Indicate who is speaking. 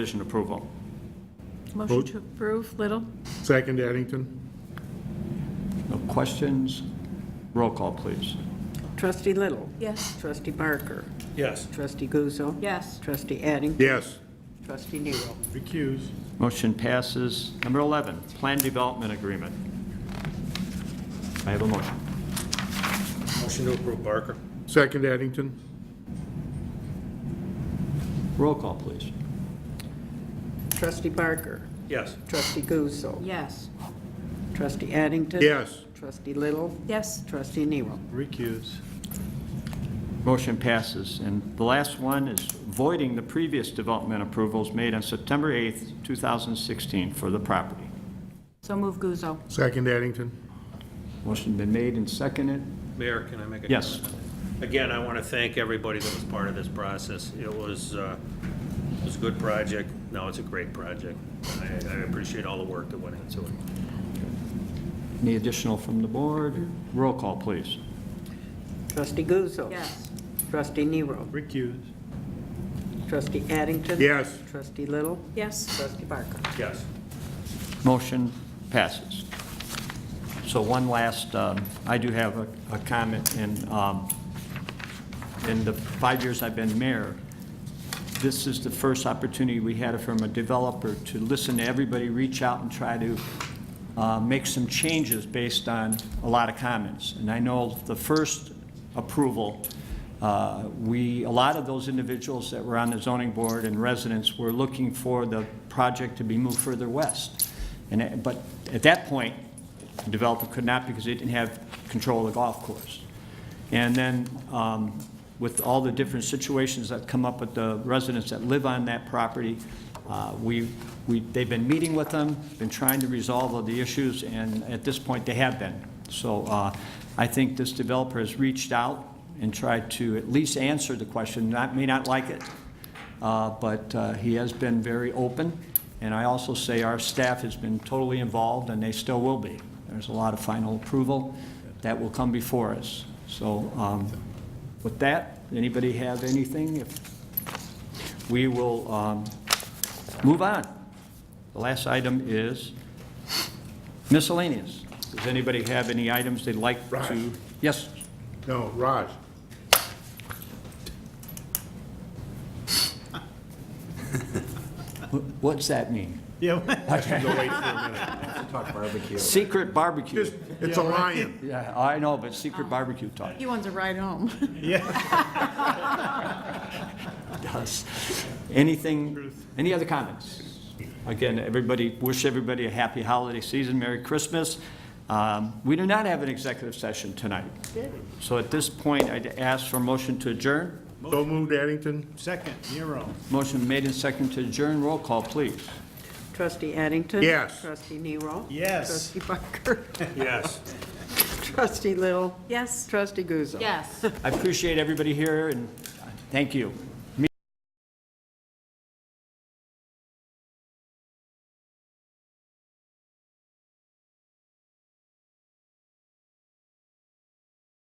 Speaker 1: condition approval.
Speaker 2: Motion
Speaker 3: Vote.
Speaker 2: to approve, Little?
Speaker 3: Second, Addington.
Speaker 1: No questions? Roll call, please.
Speaker 4: Trustee Little.
Speaker 2: Yes.
Speaker 4: Trustee Barker.
Speaker 5: Yes.
Speaker 4: Trustee Guzzo.
Speaker 2: Yes.
Speaker 4: Trustee Addington.
Speaker 3: Yes.
Speaker 4: Trustee Nero.
Speaker 3: Recuse.
Speaker 1: Motion passes. Number 11, Plan Development Agreement. I have a motion.
Speaker 5: Motion to approve Barker.
Speaker 3: Second, Addington.
Speaker 1: Roll call, please.
Speaker 4: Trustee Barker.
Speaker 5: Yes.
Speaker 4: Trustee Guzzo.
Speaker 2: Yes.
Speaker 4: Trustee Addington.
Speaker 3: Yes.
Speaker 4: Trustee Little.
Speaker 2: Yes.
Speaker 4: Trustee Nero.
Speaker 3: Recuse.
Speaker 1: Motion passes. And the last one is voiding the previous development approvals made on September 8th, 2016 for the property.
Speaker 2: So move Guzzo.
Speaker 3: Second, Addington.
Speaker 1: Motion been made and seconded.
Speaker 5: Mayor, can I make a?
Speaker 1: Yes.
Speaker 5: comment? Again, I want to thank everybody that was part of this process. It was, uh, it was a good project. No, it's a great project. I, I appreciate all the work that went into it.
Speaker 1: Any additional from the board? Roll call, please.
Speaker 4: Trustee Guzzo.
Speaker 2: Yes.
Speaker 4: Trustee Nero.
Speaker 3: Recuse.
Speaker 4: Trustee Addington.
Speaker 3: Yes.
Speaker 4: Trustee Little.
Speaker 2: Yes.
Speaker 4: Trustee Barker.
Speaker 5: Yes.
Speaker 1: Motion passes. So one last, um, I do have a- a comment, in um, in the five years I've been mayor, this is the first opportunity we had from a developer to listen to everybody, reach out and try to uh, make some changes based on a lot of comments. And I know the first approval, uh, we, a lot of those individuals that were on the zoning board and residents were looking for the project to be moved further west. And, it- but at that point, the developer could not because they didn't have control of the golf course. And then um, with all the different situations that come up with the residents that live on that property, uh, we, we, they've been meeting with them, been trying to resolve all the issues, and at this point, they have been. So uh, I think this developer has reached out and tried to at least answer the question, not, may not like it, uh, but uh, he has been very open, and I also say our staff has been totally involved, and they still will be. There's a lot of final approval that will come before us. So um, with that, anybody have anything? If- We will um, move on. The last item is miscellaneous. Does anybody have any items they'd like to?
Speaker 3: Raj.
Speaker 1: Yes,
Speaker 3: No, Raj.
Speaker 1: Wh- what's that mean? Secret barbecue.
Speaker 3: Just, it's a lion.
Speaker 1: Yeah, I know, but secret barbecue talk.
Speaker 2: He wants a ride home.
Speaker 1: does. Anything, any other comments? Again, everybody, wish everybody a happy holiday season, Merry Christmas. Um, We do not have an executive session tonight. So at this point, I'd ask for a motion to adjourn.
Speaker 3: So moved, Addington.
Speaker 6: Second, Nero.
Speaker 1: Motion made and seconded to adjourn, roll call, please.
Speaker 4: Trustee Addington.
Speaker 3: Yes.
Speaker 4: Trustee Nero.
Speaker 6: Yes.
Speaker 4: Trustee Barker.
Speaker 5: Yes.
Speaker 4: Trustee Little.
Speaker 2: Yes.
Speaker 4: Trustee Guzzo.
Speaker 2: Yes.
Speaker 1: I appreciate everybody here, and thank you.